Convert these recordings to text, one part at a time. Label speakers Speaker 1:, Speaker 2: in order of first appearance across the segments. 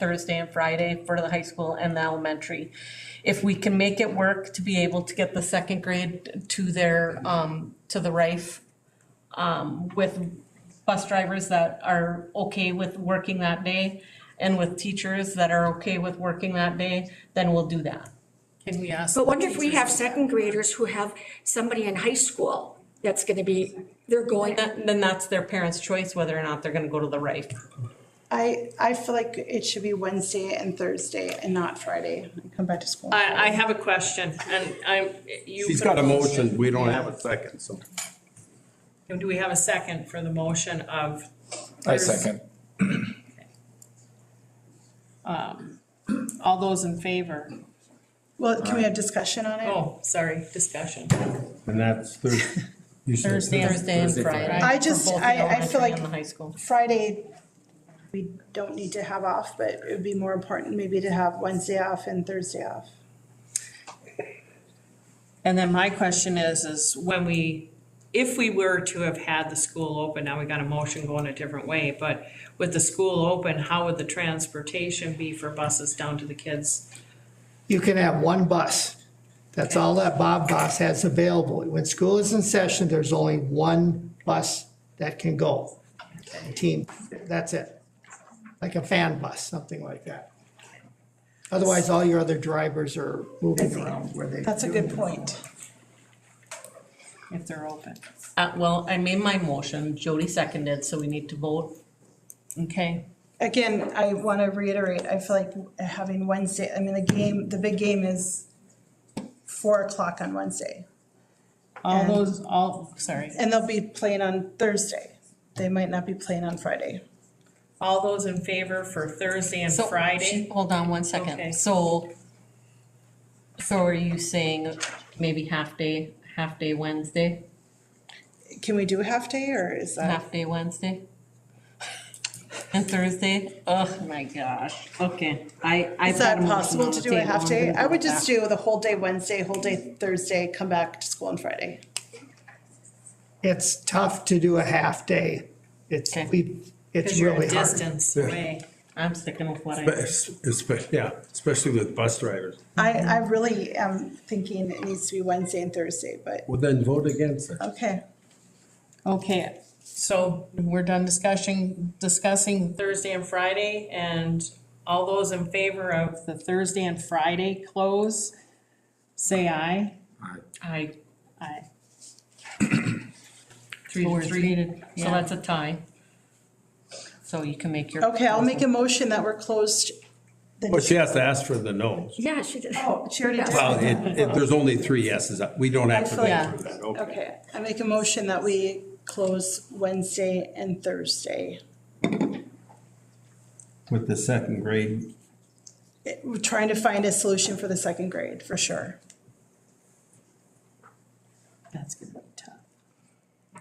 Speaker 1: Thursday and Friday for the high school and the elementary. If we can make it work to be able to get the second grade to their, um, to the Rife, um, with bus drivers that are okay with working that day and with teachers that are okay with working that day, then we'll do that.
Speaker 2: Can we ask?
Speaker 3: But wonder if we have second graders who have somebody in high school that's gonna be, they're going,
Speaker 1: That- Then that's their parents' choice whether or not they're gonna go to the Rife.
Speaker 4: I, I feel like it should be Wednesday and Thursday and not Friday. Come back to school.
Speaker 2: I, I have a question and I'm, you.
Speaker 5: She's
Speaker 2: put
Speaker 5: got a motion, we don't have a second, so.
Speaker 2: Do we have a second for the motion of?
Speaker 6: I second.
Speaker 2: Um, all those in favor?
Speaker 4: Well, can we have discussion on it?
Speaker 2: Oh, sorry, discussion.
Speaker 5: And that's Thursday.
Speaker 1: Thursday and
Speaker 6: Thursday, Friday.
Speaker 1: Friday.
Speaker 4: I
Speaker 1: for
Speaker 4: just-
Speaker 1: both the
Speaker 4: I- I
Speaker 1: elementary
Speaker 4: feel like-
Speaker 1: And the high school.
Speaker 4: Friday, we don't need to have off, but it would be more important maybe to have Wednesday off and Thursday off.
Speaker 2: And then my question is, is when we, if we were to have had the school open, now we got a motion going a different way, but with the school open, how would the transportation be for buses down to the kids?
Speaker 7: you can have one bus. That's all that Bob Boss has available. When school is in session, there's only one bus that can go. Team, that's it. Like a fan bus, something like that. Otherwise, all your other drivers are moving around where they.
Speaker 4: That's a good point.
Speaker 2: If they're open.
Speaker 1: Uh, well, I made my motion, Jody seconded, so we need to vote. Okay,
Speaker 4: Again, I want to reiterate, I feel like having Wednesday, I mean, the game, the big game is four o'clock on Wednesday.
Speaker 2: All
Speaker 4: And-
Speaker 2: those, all, sorry,
Speaker 4: And they'll be playing on Thursday. They might not be playing on Friday.
Speaker 2: all those in favor for Thursday and
Speaker 1: so.
Speaker 2: Friday?
Speaker 1: Hold on one
Speaker 2: Okay.
Speaker 1: second, so. So are you saying maybe half day, half day Wednesday,
Speaker 4: Can we do a half day or is that?
Speaker 1: half day Wednesday? And Thursday, oh my gosh, okay, I, I.
Speaker 4: Is that possible to do a half day? I would just do the whole day Wednesday, whole day Thursday, come back to school on Friday.
Speaker 7: It's tough to do a half day. It's,
Speaker 1: Okay.
Speaker 7: we, it's
Speaker 2: Because you're
Speaker 7: really
Speaker 2: a
Speaker 7: hard.
Speaker 2: distance away.
Speaker 1: I'm sticking with what I.
Speaker 5: Yeah, especially with bus drivers.
Speaker 4: I, I really am thinking it needs to be Wednesday and Thursday, but,
Speaker 5: Well, then vote against it.
Speaker 4: okay.
Speaker 2: Okay, so we're done discussing, discussing Thursday and Friday, and all those in favor of the Thursday and Friday close, say aye.
Speaker 1: I,
Speaker 2: Aye.
Speaker 1: three
Speaker 2: Four
Speaker 1: to
Speaker 2: is
Speaker 1: three,
Speaker 2: needed,
Speaker 1: so
Speaker 2: yeah.
Speaker 1: that's a tie. So you can make your.
Speaker 4: Okay, I'll make a motion that we're closed. the-
Speaker 5: But Oh, she has to ask for the no's.
Speaker 3: yeah, she did.
Speaker 4: Oh, she already did.
Speaker 5: Well, it, it, there's only three yeses, we don't have to
Speaker 1: Yeah.
Speaker 5: go through that, okay.
Speaker 4: Okay, I make a motion that we close Wednesday and Thursday.
Speaker 5: With the second grade,
Speaker 4: It- We're trying to find a solution for the second grade, for sure.
Speaker 2: That's gonna be tough.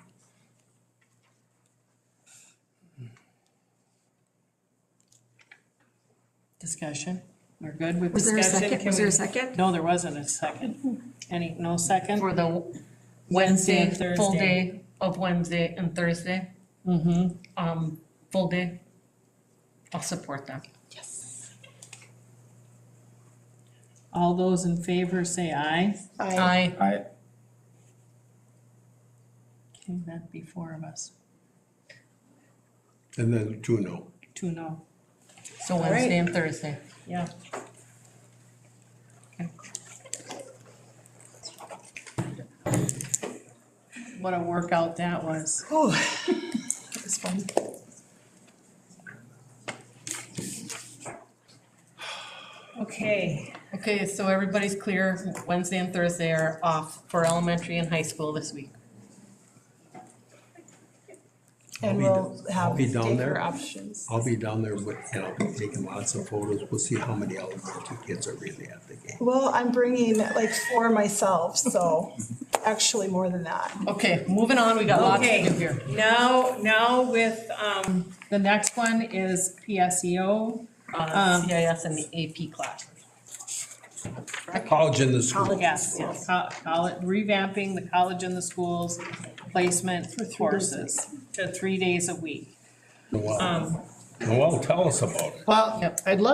Speaker 2: Discussion, we're good with
Speaker 3: Was there
Speaker 2: discussion?
Speaker 3: a second?
Speaker 2: Can
Speaker 3: Was there
Speaker 2: we-
Speaker 3: a second?
Speaker 2: No, there wasn't a second. Any, no second?
Speaker 1: For the Wednesday,
Speaker 2: Wednesday and
Speaker 1: full
Speaker 2: Thursday.
Speaker 1: day of Wednesday and Thursday. Mm-hmm. Um, full day. I'll support them.
Speaker 2: All those in favor say aye.
Speaker 4: I,
Speaker 1: I,
Speaker 6: I,
Speaker 2: Okay, that'd be four of us,
Speaker 5: and then two no.
Speaker 2: two no.
Speaker 1: so Wednesday and Thursday.
Speaker 2: Yeah. What a workout that was.
Speaker 4: this one.
Speaker 2: Okay,
Speaker 1: Okay, so everybody's clear, Wednesday and Thursday are off for elementary and high school this week.
Speaker 4: And
Speaker 5: be-
Speaker 4: we'll
Speaker 5: I'll
Speaker 4: have
Speaker 5: be down there.
Speaker 4: daycare options.
Speaker 5: I'll be down there with, and I'll be taking lots of photos, we'll see how many elementary kids are really at the game.
Speaker 4: Well, I'm bringing like four myself, so actually more than that.
Speaker 1: Okay, moving on, we got lots to do here.
Speaker 2: now, now with, um, the next one is E PSEO.
Speaker 1: Uh, CIS and the AP classes.
Speaker 5: College in the school,
Speaker 2: Yes, yes, co- college, revamping the college and the schools placement courses to three days a week.
Speaker 5: Wow.
Speaker 2: Um,
Speaker 8: Well, tell us about it.
Speaker 7: Well,
Speaker 5: Yep.
Speaker 7: I'd love